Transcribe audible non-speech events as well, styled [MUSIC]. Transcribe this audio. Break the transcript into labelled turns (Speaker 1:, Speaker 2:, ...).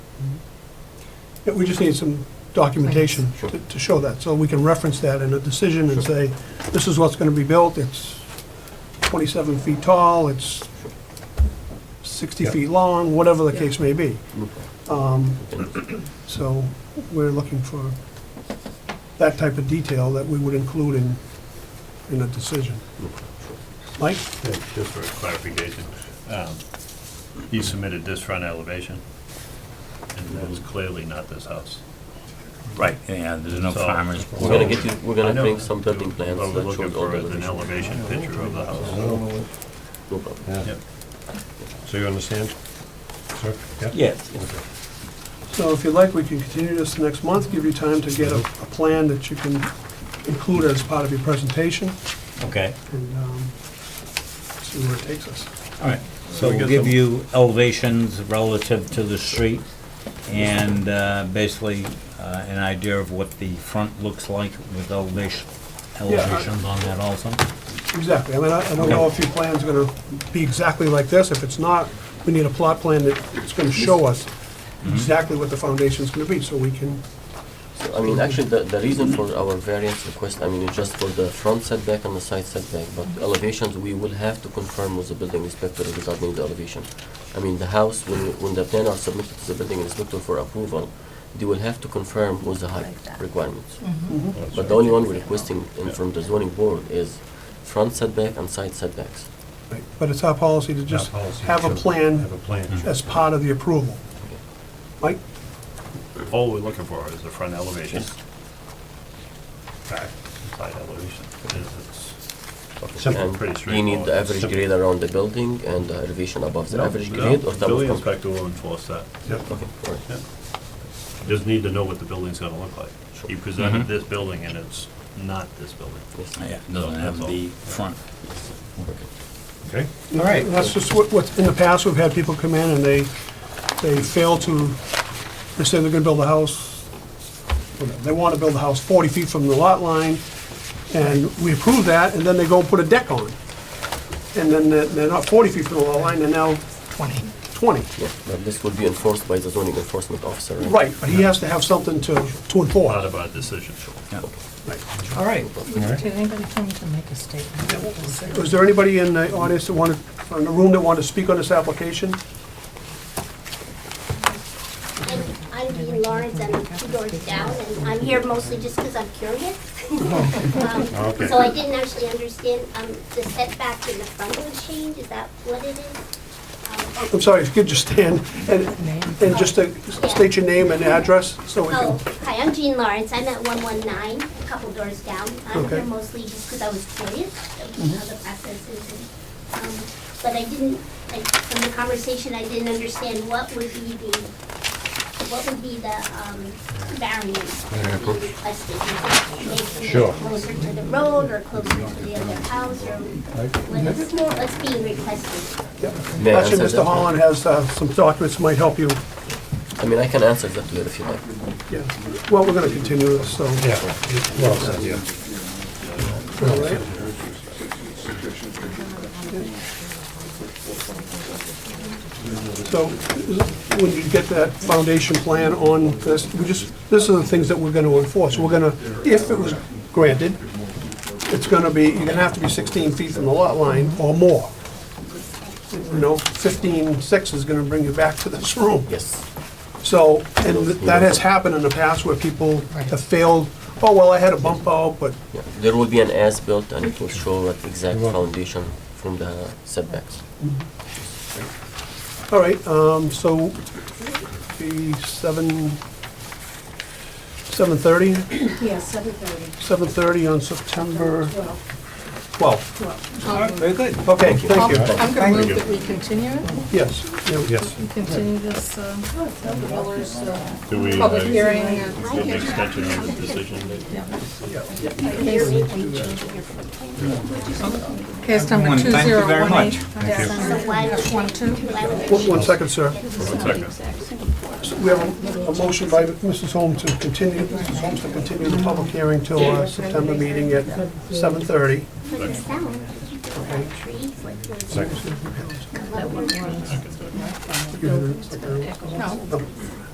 Speaker 1: Yeah, We just need some documentation
Speaker 2: Sure.
Speaker 1: to to show that, so we can reference that in a decision and say, this is what's gonna be built, it's 27 feet tall, it's 60
Speaker 2: Yeah.
Speaker 1: feet long, whatever the
Speaker 3: Yeah.
Speaker 1: case may be. Um, [CLEARS THROAT] So we're looking for that type of detail that we would include in, in a decision. Mike?
Speaker 4: Just for clarification, um, he submitted this front elevation, and that is clearly not this house.
Speaker 5: Right, yeah, there's no
Speaker 4: So-
Speaker 5: farmers.
Speaker 2: We're gonna get you, we're
Speaker 4: I
Speaker 2: gonna
Speaker 4: know.
Speaker 2: make some building plans
Speaker 4: But we're
Speaker 2: that show
Speaker 4: looking
Speaker 2: all
Speaker 4: for
Speaker 2: the
Speaker 4: an
Speaker 2: elevation.
Speaker 4: elevation picture of the house.
Speaker 2: No problem.
Speaker 4: Yep.
Speaker 6: So you understand? Sir?
Speaker 5: Yes.
Speaker 1: So if you'd like, we can continue this next month, give you time to get a, a plan that you can include as part of your presentation,
Speaker 5: Okay,
Speaker 1: and um, see where it takes us.
Speaker 5: all right. So
Speaker 6: we
Speaker 5: we'll
Speaker 6: get
Speaker 5: give
Speaker 6: them-
Speaker 5: you elevations relative to the street and uh, basically uh, an idea of what the front looks like with elevation, elevations on that also.
Speaker 1: Exactly, I mean, I I don't know if your plan's gonna be exactly like this, if it's not, we need a plot plan that's gonna show us exactly what the foundation's gonna be, so we can,
Speaker 2: So, I mean, actually, the, the reason for our variance request, I mean, it's just for the front setback and the side setback, but elevations, we will have to confirm with the building inspector regarding the elevation. I mean, the house, when, when the plan are submitted to the building inspector for approval, they will have to confirm with the height
Speaker 3: Like that. Mm.
Speaker 2: requirements.
Speaker 1: Mhm.
Speaker 2: But the only one we're requesting in from the zoning board is front setback and side setbacks.
Speaker 1: right. but it's our policy to just have a plan
Speaker 6: Have a plan.
Speaker 1: as part of the approval. Mike?
Speaker 4: Mm-hmm. All we're looking for is the front elevation. Back, side elevation. It is- it's-
Speaker 6: Simple.
Speaker 2: And
Speaker 4: Pretty
Speaker 2: you need
Speaker 4: straightforward.
Speaker 2: the average grade around the building and the elevation above the
Speaker 4: No,
Speaker 2: average
Speaker 4: no,
Speaker 2: grade or double
Speaker 4: Building
Speaker 2: complex?
Speaker 4: inspector will enforce that.
Speaker 2: Okay, all right.
Speaker 4: Just need to know what the building's gonna look like. You
Speaker 6: Mm-hmm.
Speaker 4: presented this building, and it's not this building.
Speaker 5: Yeah, doesn't have the front.
Speaker 6: Okay.
Speaker 1: All right. That's just what, what's, in the past, we've had people come in and they, they fail to, they say they're gonna build a house, they wanna build a house forty feet from the lot line, and we approve that, and then they go and put a deck on. And then they're, they're not forty feet from the lot line, they're now
Speaker 3: Twenty.
Speaker 1: twenty.
Speaker 2: Yeah, but this will be enforced by the zoning enforcement officer, right?
Speaker 1: Right, but he has to have something to, to
Speaker 4: Part
Speaker 1: enforce.
Speaker 4: of our decision.
Speaker 1: All right.
Speaker 3: Did anybody come to make a statement?
Speaker 1: Was there anybody in the audience that wanted, in the room that wanted to speak on this application?
Speaker 7: I'm- I'm Dean Lawrence, I'm two doors down, and I'm here mostly just because I'm curious. Um, So I didn't actually understand, um, the setback in the front was change. is that what it is? Um,
Speaker 1: I'm sorry, if you could just stand and,
Speaker 3: Name?
Speaker 1: and just to state your name and address, so we
Speaker 7: Oh,
Speaker 1: can.
Speaker 7: hi, I'm Jean Lawrence, I'm at 119, a couple doors down. I'm
Speaker 1: Okay.
Speaker 7: here mostly just because I was curious of how the process is. and, um, But I didn't, like, from the conversation, I didn't understand what would be the, what would be the um, variance that would be requested. Is it
Speaker 6: Sure.
Speaker 7: Making it closer to the road or closer to the other house or what is, what's being requested?
Speaker 2: May I
Speaker 1: Actually,
Speaker 2: answer
Speaker 1: Mr.
Speaker 2: that?
Speaker 1: Holland has uh, some documents that might help you.
Speaker 2: I mean, I can answer that later if you like.
Speaker 1: Yeah. Well, we're going to continue this, so.
Speaker 6: Yeah, well said, yeah.
Speaker 1: All right. So when you get that foundation plan on this, we just, this are the things that we're going to enforce. We're going to, if it was granted, it's going to be, you're going to have to be 16 feet from the lot line or more. You know, 15.6 is going to bring you back to this room.
Speaker 2: Yes.
Speaker 1: So, and th- that has happened in the past where people have failed, oh, well, I had a bump out, but
Speaker 2: Yeah. There will be an as-built and it will show what exact foundation from the setbacks.
Speaker 1: All right, um, so be seven, seven thirty,
Speaker 8: Yes, seven thirty,
Speaker 1: seven thirty on September
Speaker 8: twelve,
Speaker 1: twelve.
Speaker 8: twelve.
Speaker 1: Very good. Okay, thank you.
Speaker 8: I'm gonna move that we continue it,
Speaker 1: Yes, yeah,
Speaker 6: Yes.
Speaker 8: we continue this, uh, Miller's, uh,
Speaker 4: Do we uh,
Speaker 8: public
Speaker 4: get
Speaker 8: hearing. uh, and-
Speaker 4: an extension on the decision?
Speaker 8: Case number
Speaker 5: Everyone,
Speaker 8: two
Speaker 5: thank you
Speaker 8: zero
Speaker 5: very
Speaker 8: one eight.
Speaker 5: much.
Speaker 7: So why would,
Speaker 8: One two.
Speaker 7: why would
Speaker 1: one, one second, sir.
Speaker 4: Second.
Speaker 1: So We have a, a motion by Mrs. Holmes to continue, Mrs. Holmes to continue the public hearing till our September meeting at seven thirty.
Speaker 7: for the sound, you could put up trees like those- Come up with-
Speaker 8: No.